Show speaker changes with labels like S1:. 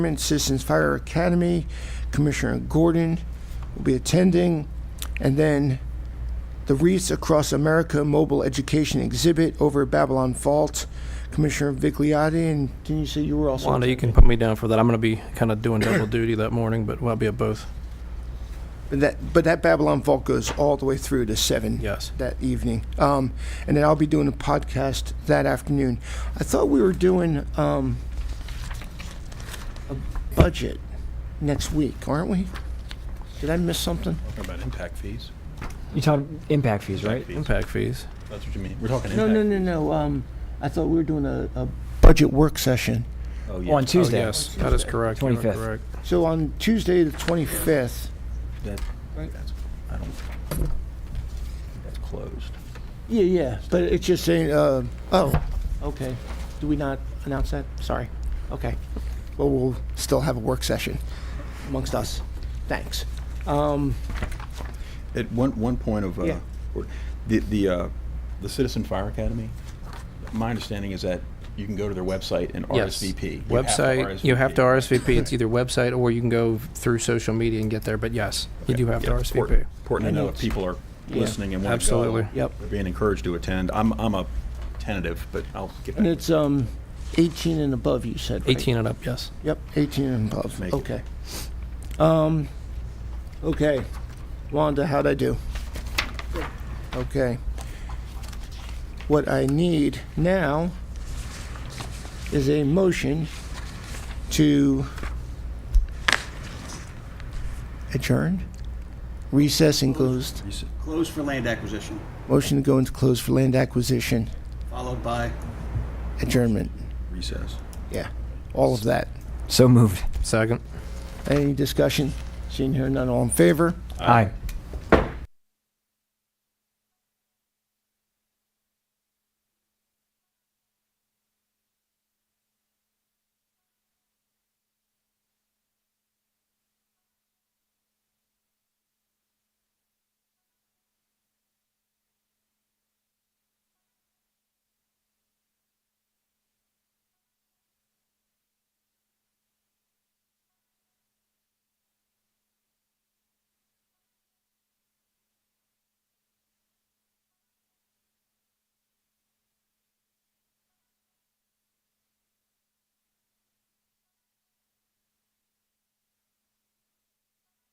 S1: Department, Citizens Fire Academy. Commissioner Gordon will be attending. And then the Wreaths Across America Mobile Education Exhibit over at Babylon Fault. Commissioner Vigliotti, and didn't you say you were also?
S2: Wanda, you can put me down for that. I'm going to be kind of doing double duty that morning, but I'll be at both.
S1: But that, but that Babylon Vault goes all the way through to seven.
S2: Yes.
S1: That evening, um, and then I'll be doing a podcast that afternoon. I thought we were doing um, a budget next week, aren't we? Did I miss something?
S3: Talking about impact fees?
S4: You talked impact fees, right?
S3: Fees.
S2: Impact fees. Oh,
S3: That's what you mean. We're talking
S1: No, no,
S3: impact.
S1: no, no. Um, I thought we were doing a, a budget work session.
S3: Oh,
S4: On
S2: Oh,
S4: Tuesday.
S2: yes, that is correct. You are
S4: 25th.
S2: correct.
S1: So on Tuesday, the twenty fifth.
S3: That- that's- I don't, that's closed.
S1: Yeah, yeah. But it's just saying. Uh, oh, okay. Do we not announce that? Sorry. Okay. Well, we'll still have a work session amongst us. Thanks. Um,
S3: At one, one point of,
S1: Yeah.
S3: uh, or- the, the, uh, the Citizen Fire Academy, my understanding is that you can go to their website and
S2: Yes.
S3: RSVP. You have to
S2: Website, you have to RSVP. It's either website or you can go through social media and get there, but yes, you do have to
S3: Yeah, important-
S2: RSVP.
S3: Important to
S1: I know
S3: know if
S1: it's-
S3: people are
S1: Yeah.
S3: listening and want to go.
S2: Absolutely.
S1: Yep.
S3: They're being encouraged to attend. I'm, I'm a tentative, but I'll get
S1: and
S3: back.
S1: it's um, 18 and above. You said right?
S2: 18 and up, yes.
S1: Yep, 18 and above.
S3: Make it.
S1: okay. Um, okay, Wanda, how'd I do? Okay. What I need now is a motion to adjourn, recess and closed.
S5: Close for land acquisition,
S1: Motion to go into close for land acquisition,
S5: followed by
S1: adjournment.
S3: Recess.
S1: Yeah, all of that.
S4: So moved.
S2: Second.
S1: Any discussion? Seeing here none, all in favor?
S4: Aye.